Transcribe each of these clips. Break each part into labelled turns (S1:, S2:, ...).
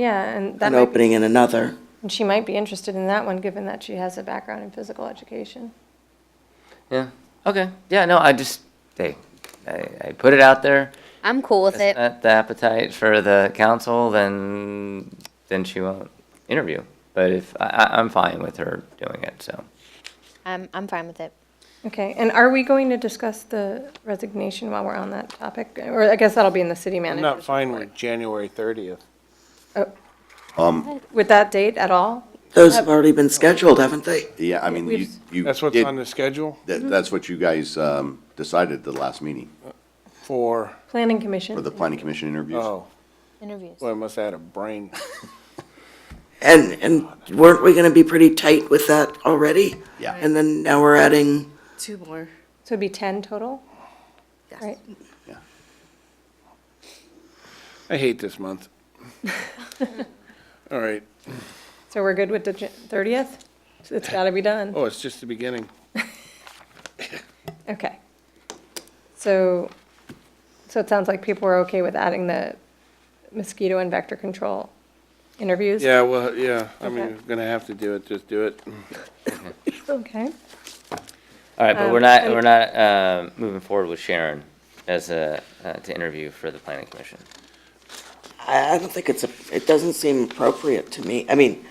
S1: Yeah, and that
S2: an
S1: might,
S2: opening in another.
S1: and she might be interested in that one, given that she has a background in physical education.
S3: Yeah. Okay. Yeah. No, I just hey, I, I put it out there.
S4: I'm cool with
S3: If
S4: it.
S3: it's not the appetite for the council, then then she won't interview. But if I, I, I'm fine with her doing it, so
S4: I'm, I'm fine with it.
S1: Okay, and are we going to discuss the resignation while we're on that topic? Or I guess that'll be in the city
S5: I'm
S1: manager.
S5: not fine with January 30th.
S1: With that date at all?
S2: Those have already been scheduled, haven't they?
S6: Yeah, I mean, you,
S1: We've- Mm-hmm.
S6: you.
S5: That's what's
S6: did-
S5: on the schedule
S6: that- That's what you guys um, decided the last meeting
S5: for,
S1: Planning commission?
S6: for the planning commission interviews.
S5: oh,
S4: Interviews.
S5: well, I must have had a brain.
S2: And, and weren't we gonna be pretty tight with that already?
S6: Yeah.
S2: And then now we're adding,
S7: Two more.
S1: So it'd be 10 total?
S7: Yes.
S1: Right,
S5: I hate this month. All right.
S1: so we're good with the Jan- 30th? It's got to be done.
S5: Oh, it's just the beginning.
S1: Okay. So, so it sounds like people are okay with adding the mosquito and vector control interviews?
S5: Yeah, well, yeah, I mean,
S1: Okay.
S5: we're gonna have to do it, just do it.
S1: Okay.
S3: all right. But
S1: Um,
S3: we're not
S1: and-
S3: we're not uh, moving forward with Sharon as a uh, to interview for the planning commission.
S2: I, I don't think it's, a. it doesn't seem appropriate to me. I mean,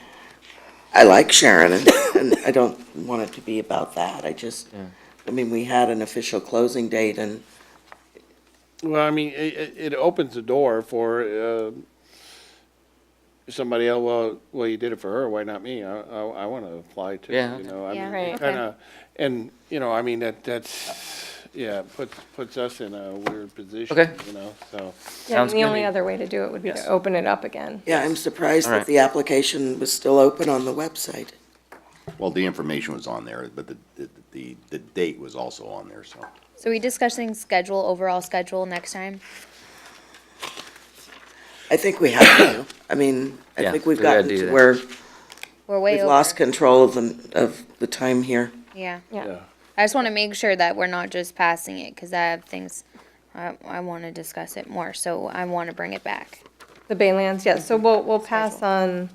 S2: I like Sharon and, and I don't want it to be about that. I just, I mean, we had an official closing date and
S5: Well, I mean, it, it- it opens the door for, uh, somebody else, well, well, you did it for her, why not me? I, I, I wanna apply to,
S3: Yeah.
S5: you know, I
S4: Yeah,
S5: mean,
S1: Right.
S5: it kinda, and, you know, I mean, that, that's, yeah, puts, puts us in a weird position,
S3: Okay.
S5: you know, so.
S1: Yeah, and
S3: Sounds
S1: the
S3: good.
S1: only other way to do it would be to
S5: Yes.
S1: open it up again.
S2: Yeah, I'm surprised
S3: All right.
S2: that the application was still open on the website.
S6: Well, the information was on there, but the, the- the, the date was also on there, so.
S4: So we discussing schedule, overall schedule next time?
S2: I think we have to. I mean, I
S3: Yeah,
S2: think we've
S3: we gotta
S2: gotten
S3: do
S2: to
S3: that.
S2: where
S4: We're way
S2: we've
S4: over.
S2: lost control of the, of the time here.
S4: Yeah.
S1: Yeah.
S4: I just want to make sure that we're not just passing it because I have things, I, I want to discuss it more. So I want to bring it back.
S1: The Baylands, yes, so we'll, we'll pass on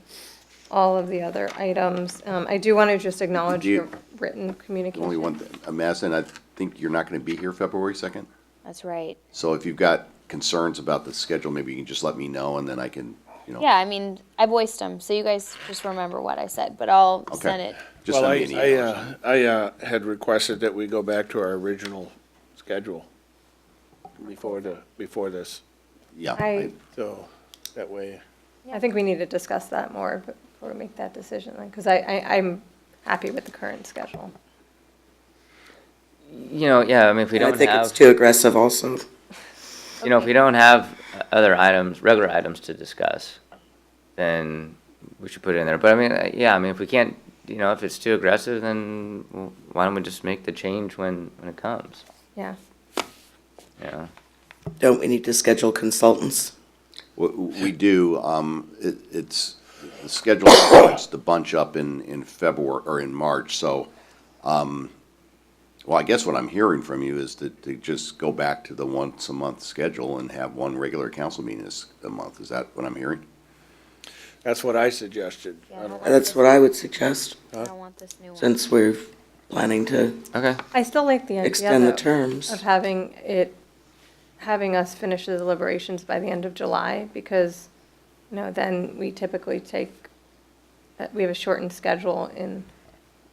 S1: all of the other items. Um, I do want to just acknowledge
S6: Do you-
S1: your written communication.
S6: Only one, I'm asking, I think you're not gonna be here February second?
S4: That's right.
S6: So if you've got concerns about the schedule, maybe you can just let me know and then I can, you know.
S4: Yeah, I mean, I voiced them. So you guys just remember what I said, but I'll
S6: Okay.
S4: send it.
S6: Just
S5: Well,
S6: send me an
S5: I- I,
S6: email. or something.
S5: uh, I, uh, had requested that we go back to our original schedule before the, before this,
S6: Yeah.
S1: I,
S5: so that way.
S1: I think we need to discuss that more before we make that decision, because I, I, I'm happy with the current schedule.
S3: You know, yeah. I mean, if we
S2: And I
S3: don't
S2: think
S3: have
S2: it's too aggressive also.
S3: you know, if we don't have uh, other items, regular items to discuss, then we should put it in there. But I mean, uh, yeah, I mean, if we can't, you know, if it's too aggressive, then w- why don't we just make the change when, when it comes?
S1: Yeah.
S3: You know?
S2: Don't we need to schedule consultants?
S6: We, we do, um, it, it's, the schedule starts to bunch up in, in February, or in March, so, um, well, I guess what I'm hearing from you is to, to just go back to the once-a-month schedule and have one regular council meeting this, a month, is that what I'm hearing?
S5: That's what I suggested. I don't-
S2: That's what I would suggest,
S4: I don't want this new one.
S2: since we're planning to
S3: Okay.
S1: I still like the idea.
S2: extend the
S1: though, Of
S2: terms.
S1: having it, having us finish the deliberations by the end of July, because, you know, then we typically take, uh, we have a shortened schedule in,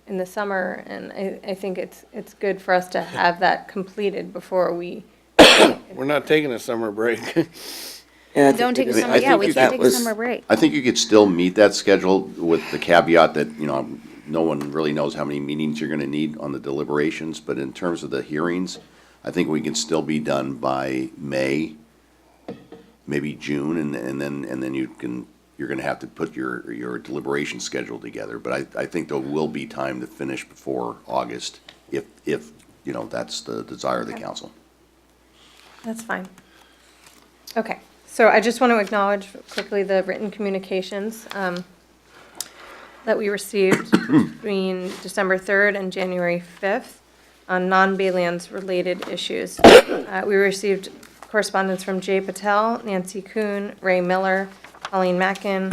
S1: in the summer, and I, I think it's, it's good for us to have that completed before we,
S5: We're not taking a summer break.
S2: Yeah, I think
S4: Don't
S2: we
S4: take a
S2: just-
S4: summer,
S2: I
S4: yeah,
S2: think
S4: we
S2: that
S4: can take a
S2: was-
S4: summer break.
S6: I think you could still meet that schedule with the caveat that, you know, no one really knows how many meetings you're gonna need on the deliberations, but in terms of the hearings, I think we can still be done by May, maybe June, and, and then, and then you can, you're gonna have to put your, your deliberation schedule together, but I, I think there will be time to finish before August, if, if, you know, that's the desire of the council.
S1: that's fine. Okay, so I just want to acknowledge quickly the written communications um, that we received between December 3rd and January 5th on non-Baylands related issues. Uh, We received correspondence from Jay Patel, Nancy Kuhn, Ray Miller, Colleen Mackin,